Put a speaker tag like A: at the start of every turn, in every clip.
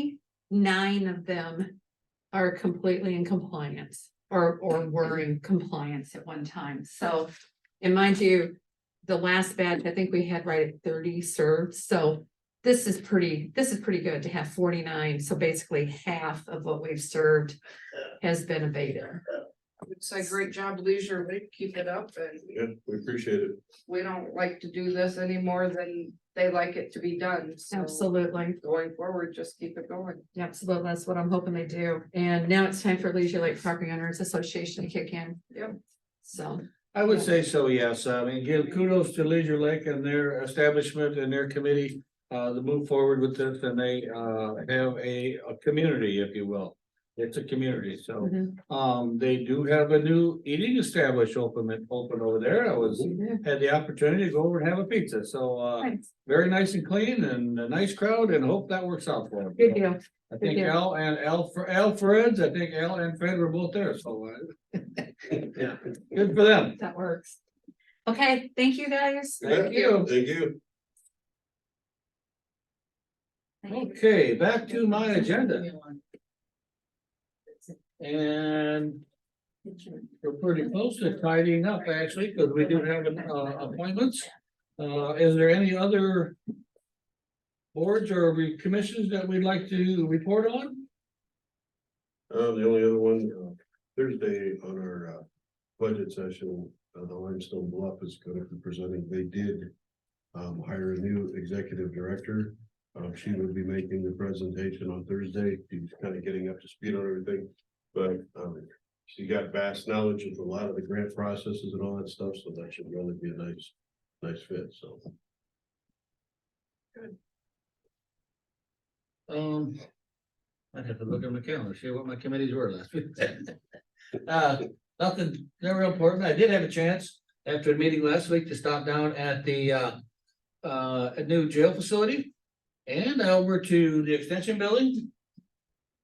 A: forty-nine of them are completely in compliance or, or were in compliance at one time. So, and mind you, the last batch, I think we had right at thirty served, so this is pretty, this is pretty good to have forty-nine. So basically half of what we've served has been abated.
B: would say great job leisure, we keep it up and
C: Yeah, we appreciate it.
B: we don't like to do this any more than they like it to be done, so.
A: Absolutely.
B: Going forward, just keep it going.
A: Absolutely, that's what I'm hoping they do. And now it's time for Leisure Lake Property Owners Association to kick in.
B: Yep.
A: So,
D: I would say so, yes. I mean, give kudos to Leisure Lake and their establishment and their committee. Uh, to move forward with this and they, uh, have a, a community, if you will. It's a community, so,
A: mhm.
D: um, they do have a new eating establishment open, open over there. I was. Had the opportunity to go over and have a pizza, so, uh,
A: Thanks.
D: very nice and clean and a nice crowd and hope that works out for them.
A: good deal.
D: I think
A: Yeah.
D: Al and Al, Al Fred's, I think Al and Fred were both there, so. uh, Yeah, good for them.
A: That works. Okay, thank you guys.
D: Thank you.
C: Thank you.
D: Okay, back to my agenda and we're pretty close to tidying up actually, because we do have uh, appointments. Uh, is there any other boards or re- commissions that we'd like to report on?
C: Uh, the only other one, uh, Thursday on our, uh, budget session, uh, the Limestone Bluff is gonna be presenting, they did. Um, hire a new executive director, um, she will be making the presentation on Thursday, she's kind of getting up to speed on everything. But, um, she got vast knowledge of a lot of the grant processes and all that stuff, so that should really be a nice, nice fit, so.
D: Um. I'd have to look at my calendar, see what my committees were last week. Uh, nothing, not real important. I did have a chance after the meeting last week to stop down at the uh. Uh, a new jail facility and over to the extension building.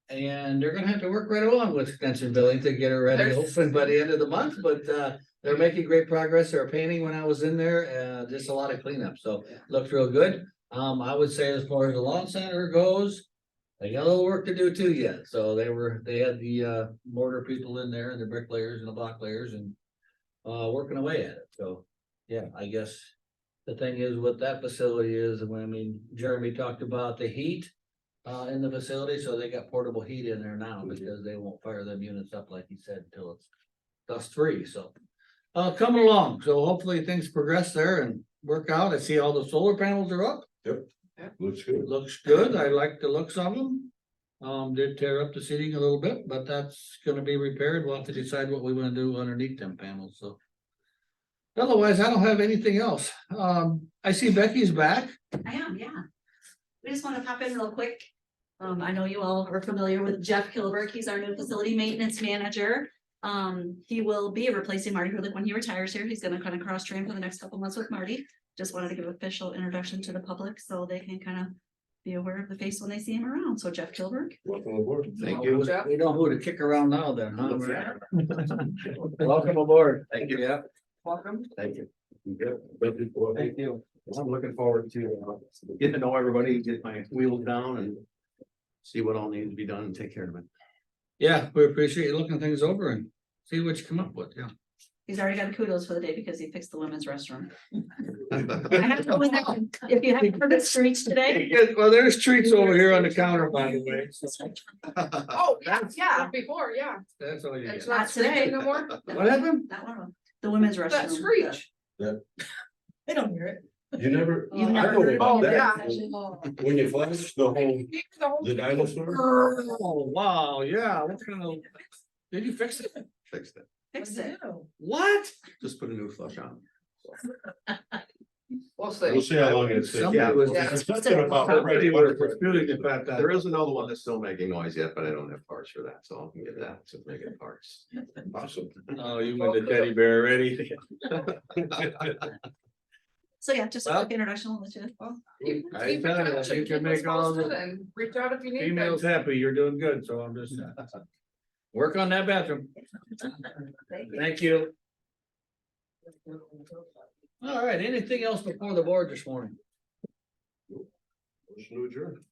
D: And they're gonna have to work right along with extension building to get it ready, hopefully by the end of the month, but uh. They're making great progress. They're painting when I was in there, uh, just a lot of cleanup, so looked real good. Um, I would say as far as the lawn center goes. They got a little work to do too yet, so they were, they had the uh mortar people in there and the bricklayers and the blocklayers and. Uh, working away at it, so, yeah, I guess. The thing is what that facility is, and when I mean, Jeremy talked about the heat. Uh, in the facility, so they got portable heat in there now because they won't fire them units up like he said until it's dust free, so. Uh, coming along, so hopefully things progress there and work out. I see all the solar panels are up.
C: Looks good.
D: Looks good. I like the looks of them. Um, did tear up the seating a little bit, but that's gonna be repaired. We'll have to decide what we wanna do underneath them panels, so. Otherwise, I don't have anything else. Um, I see Becky's back.
E: I am, yeah. We just want to pop in real quick. Um, I know you all are familiar with Jeff Kilberg. He's our new facility maintenance manager. Um, he will be replacing Marty Hurlick when he retires here. He's gonna kind of cross train for the next couple months with Marty. Just wanted to give official introduction to the public so they can kind of be aware of the face when they see him around. So Jeff Kilberg.
C: Welcome aboard.
B: Thank you.
D: We know who to kick around now then, huh? Welcome aboard. Thank you. Yeah.
B: Welcome.
F: Thank you.
C: Thank you for-
F: Thank you. I'm looking forward to uh, getting to know everybody, get my wheels down and see what all needs to be done and take care of it.
D: Yeah, we appreciate you looking things over and see what you come up with, yeah.
E: He's already got kudos for the day because he fixed the women's restroom. I have to win that- If you haven't heard the screech today.
D: Well, there's treats over here on the counter, by the way. so
B: Oh, that's, yeah,
E: Yeah.
B: before, yeah,
D: That's all you
B: it's
D: get.
B: not
E: Not today.
B: screeching no more,
D: What happened?
E: That one, the women's restroom.
B: that screech.
E: They don't hear it.
C: You never,
E: You've
C: I
E: never
C: know
E: heard of
C: about
B: it?
C: that.
B: Oh,
C: When you flash the whole,
B: The whole-
C: the dinosaur,
D: Oh, wow, yeah, what kind of, did you fix it?
F: Fix that.
E: Fix it.
D: What?
F: Just put a new flush on.
B: We'll see.
C: we'll see how long it takes.
D: Somebody was,
B: Yeah.
C: It's something about
D: somebody was disputing the
C: right-
D: fact that.
F: There is another one that's still making noise yet, but I don't have parts for that, so I can get that to make it parts.
C: Awesome.
D: Oh, you went to teddy bear already.
E: So yeah, just a
D: Well-
E: quick introduction, I'll let you. well,
B: Keep-
D: I
B: keep in
D: tell you,
B: touch
D: you
B: and
D: can
B: keep
D: make
B: us
D: all the
B: posted and Reach out if you need.
D: Females
B: things.
D: happy, you're doing good, so I'm just. uh, Work on that bathroom.
E: thank you.
D: Thank you. All right, anything else before the board this morning?
C: Motion to adjourn.